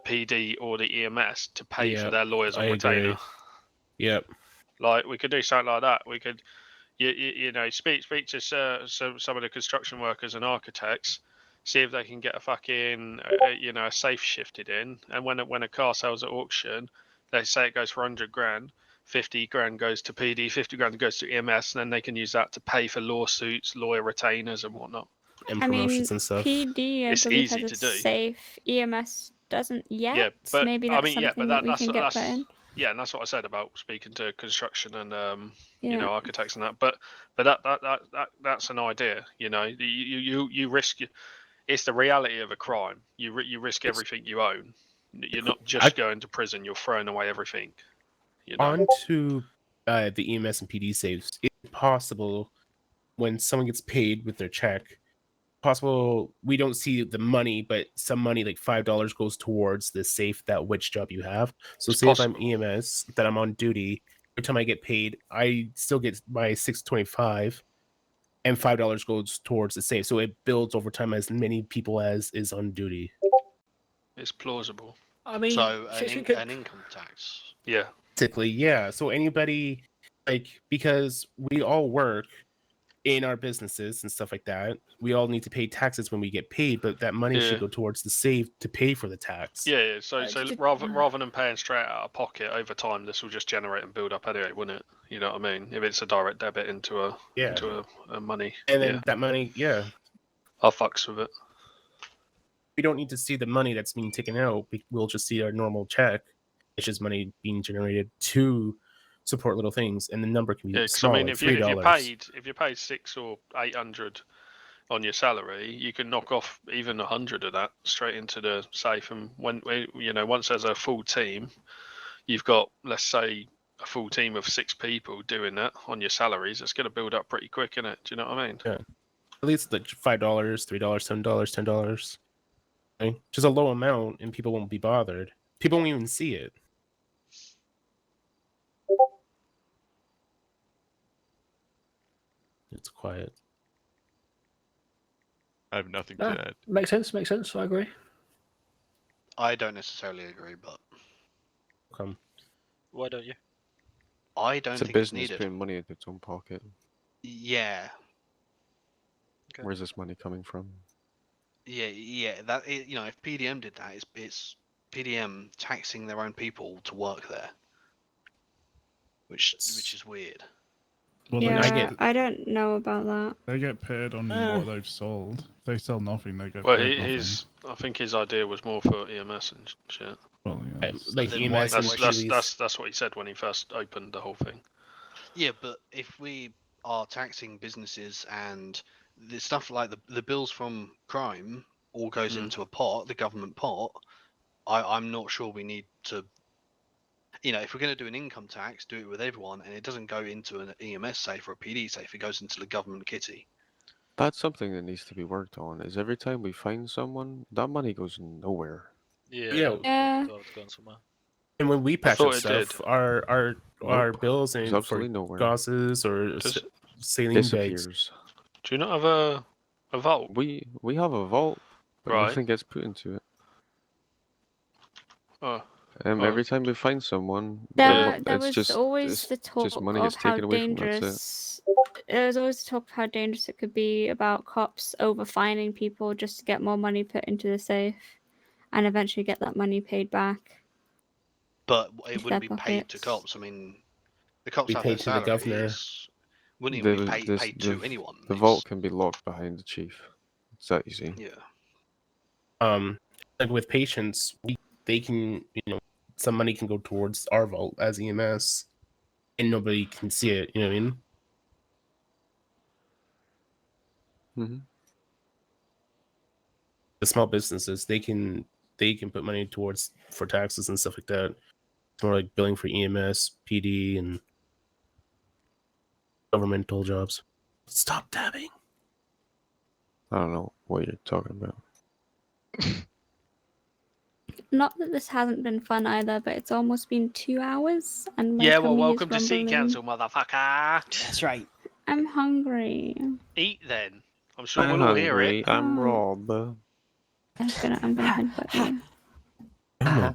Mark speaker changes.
Speaker 1: PD or the EMS to pay
Speaker 2: Yeah,
Speaker 1: for their lawyers on
Speaker 2: I agree.
Speaker 1: retainer.
Speaker 2: Yep.
Speaker 1: Like we could do something like that. We could, you, you, you know, speak speak to uh, some some of the construction workers and architects, see if they can get a fucking uh, you know a safe shifted in. And when a- when a car sells at auction, they say it goes for hundred grand, fifty grand goes to PD, fifty grand goes to EMS, and then they can use that to pay for lawsuits, lawyer retainers, and whatnot.
Speaker 2: And
Speaker 3: I mean,
Speaker 2: promotions and stuff.
Speaker 3: PD, I
Speaker 1: It's
Speaker 3: believe,
Speaker 1: easy
Speaker 3: has
Speaker 1: to
Speaker 3: a
Speaker 1: do.
Speaker 3: safe. EMS doesn't yet.
Speaker 1: but-
Speaker 3: Maybe
Speaker 1: I
Speaker 3: that's
Speaker 1: mean,
Speaker 3: something
Speaker 1: yeah, but
Speaker 3: that,
Speaker 1: that-
Speaker 3: we
Speaker 1: that's-
Speaker 3: can get put
Speaker 1: that's-
Speaker 3: in.
Speaker 1: Yeah, and that's what I said about speaking to construction and um,
Speaker 3: Yeah.
Speaker 1: you know architects and that but but that that that, that that's an idea you know you you you, you risk it's the reality of a crime you ri- you risk
Speaker 2: It's-
Speaker 1: everything you own you're
Speaker 2: cr-
Speaker 1: not just
Speaker 2: I-
Speaker 1: going to prison you're throwing away everything you know
Speaker 2: On to uh, the EMS and PD saves. Is it possible when someone gets paid with their check? Possible we don't see the money, but some money like five dollars goes towards the safe that which job you have. So
Speaker 1: It's
Speaker 2: say if
Speaker 1: possible.
Speaker 2: I'm EMS that I'm on duty, every time I get paid, I still get my six twenty five, and five dollars goes towards the safe. So it builds over time as many people as is on duty.
Speaker 1: it's plausible
Speaker 4: I mean,
Speaker 5: So
Speaker 4: so
Speaker 5: an,
Speaker 4: she
Speaker 5: in-
Speaker 4: could-
Speaker 5: an income tax.
Speaker 1: yeah
Speaker 2: Typically, yeah. So anybody like because we all work in our businesses and stuff like that, we all need to pay taxes when we get paid, but that money
Speaker 1: Yeah.
Speaker 2: should go towards the save to pay for the tax.
Speaker 1: yeah, yeah. so
Speaker 3: Right,
Speaker 1: so
Speaker 3: did-
Speaker 1: rather
Speaker 3: uh.
Speaker 1: rather than paying straight out of pocket over time this will just generate and build up anyway wouldn't it you know what i mean if it's a direct debit into a
Speaker 2: Yeah.
Speaker 1: into a, a money
Speaker 2: And then
Speaker 1: yeah
Speaker 2: that money, yeah.
Speaker 1: i fucks with it
Speaker 2: We don't need to see the money that's being taken out. we- We'll just see our normal check. It's just money being generated to support little things, and the number can be
Speaker 1: Yeah, 'cause
Speaker 2: small,
Speaker 1: I mean,
Speaker 2: like
Speaker 1: if, you, if you're
Speaker 2: $3.
Speaker 1: paid, if you're paid six or eight hundred on your salary, you can knock off even a hundred of that straight into the safe. And when when- you know, once there's a full team, you've got let's say a full team of six people doing that on your salaries. It's going to build up pretty quick, is it? Do you know what I mean?
Speaker 2: at least like five dollars, three dollars, seven dollars, ten dollars, right? which is a low amount, and people won't be bothered. People won't even see it. It's quiet.
Speaker 6: I have nothing
Speaker 4: Ah.
Speaker 6: to add.
Speaker 4: makes sense. Makes sense. I agree.
Speaker 5: I don't necessarily agree, but
Speaker 2: Come,
Speaker 7: Why don't you?
Speaker 5: I don't
Speaker 8: It's a
Speaker 5: think it's
Speaker 8: business
Speaker 5: needed.
Speaker 8: putting money into its own pocket.
Speaker 5: Yeah,
Speaker 7: Okay.
Speaker 8: Where's this money coming from?
Speaker 5: yeah, yeah. That i you know, if PDM did that, it's it's PDM taxing their own people to work there, which which is weird.
Speaker 9: Well,
Speaker 3: yeah,
Speaker 9: they,
Speaker 3: I,
Speaker 9: get,
Speaker 2: get-
Speaker 3: don't know about that.
Speaker 9: they get paid on
Speaker 4: Uh.
Speaker 9: what they've sold. If they sell nothing, they get
Speaker 1: Well,
Speaker 9: paid
Speaker 1: he,
Speaker 9: nothing.
Speaker 1: his I think his idea was more for EMS and shit.
Speaker 9: Well, yeah,
Speaker 2: Um,
Speaker 9: it's-
Speaker 2: like
Speaker 5: Then why-
Speaker 2: EMS and
Speaker 1: That's that's,
Speaker 2: Achilles.
Speaker 1: that's that's what he said when he first opened the whole thing.
Speaker 5: Yeah, but if we are taxing businesses and the stuff like the the bills from crime all goes
Speaker 2: Hmm.
Speaker 1: Mm.
Speaker 5: into a pot, the government pot, I I'm not sure we need to. You know, if we're going to do an income tax, do it with everyone, and it doesn't go into an EMS safe or a PD safe. It goes into the government kitty.
Speaker 8: That's something that needs to be worked on. Is every time we find someone, that money goes nowhere.
Speaker 7: Yeah.
Speaker 2: Yeah.
Speaker 3: Yeah.
Speaker 7: God, it's gone somewhere.
Speaker 2: and when we patch up
Speaker 1: thought it did.
Speaker 2: stuff, our our our bills
Speaker 8: It's
Speaker 2: and
Speaker 8: absolutely
Speaker 2: for
Speaker 8: nowhere.
Speaker 2: gauzes or
Speaker 1: Does-
Speaker 2: s- saline bags,
Speaker 8: disappears.
Speaker 1: Do you not have a a vault?
Speaker 8: We we have a vault, but
Speaker 1: Right.
Speaker 8: nothing gets put into it.
Speaker 1: Oh,
Speaker 8: Um,
Speaker 1: Oh.
Speaker 8: every time we find someone, the
Speaker 3: There,
Speaker 8: vo-
Speaker 3: there
Speaker 8: it's
Speaker 3: was
Speaker 8: just
Speaker 3: always
Speaker 8: it's
Speaker 3: the talk
Speaker 8: money
Speaker 3: of
Speaker 8: gets
Speaker 3: how
Speaker 8: taken away from them, that's it.
Speaker 3: dangerous. There was always talk of how dangerous it could be about cops overfining people just to get more money put into the safe, and eventually get that money paid back.
Speaker 5: But w- it
Speaker 3: Into
Speaker 5: wouldn't be
Speaker 3: their
Speaker 5: paid to
Speaker 3: pockets.
Speaker 5: cops. I mean, the cops
Speaker 2: Be
Speaker 5: have their
Speaker 2: paid to the governor.
Speaker 5: salaries, Wouldn't even
Speaker 8: The-
Speaker 5: be paid,
Speaker 8: this-
Speaker 5: paid
Speaker 8: the-
Speaker 5: to anyone.
Speaker 8: the
Speaker 5: it's-
Speaker 8: vault can be locked behind the chief. It's that easy.
Speaker 5: Yeah.
Speaker 2: um like with patients we, they can you know some money can go towards our vault as ems and nobody can see it you know what i mean
Speaker 8: hmm
Speaker 2: the small businesses they can they can put money towards for taxes and stuff like that it's more like billing for E ems pd and governmental jobs stop dabbing
Speaker 8: I don't know what you're talking about.
Speaker 3: Not that this hasn't been fun either, but it's almost been two hours, and my
Speaker 1: yeah. Well,
Speaker 3: tummy is
Speaker 1: welcome to Sea
Speaker 3: rumbling.
Speaker 1: Council, motherfucker.
Speaker 4: That's right.
Speaker 3: I'm hungry.
Speaker 1: Eat then. I'm sure we'll all hear it.
Speaker 8: I'm
Speaker 3: Oh.
Speaker 8: Rob.
Speaker 3: I'm gonna, I'm gonna think about you.
Speaker 2: Oh my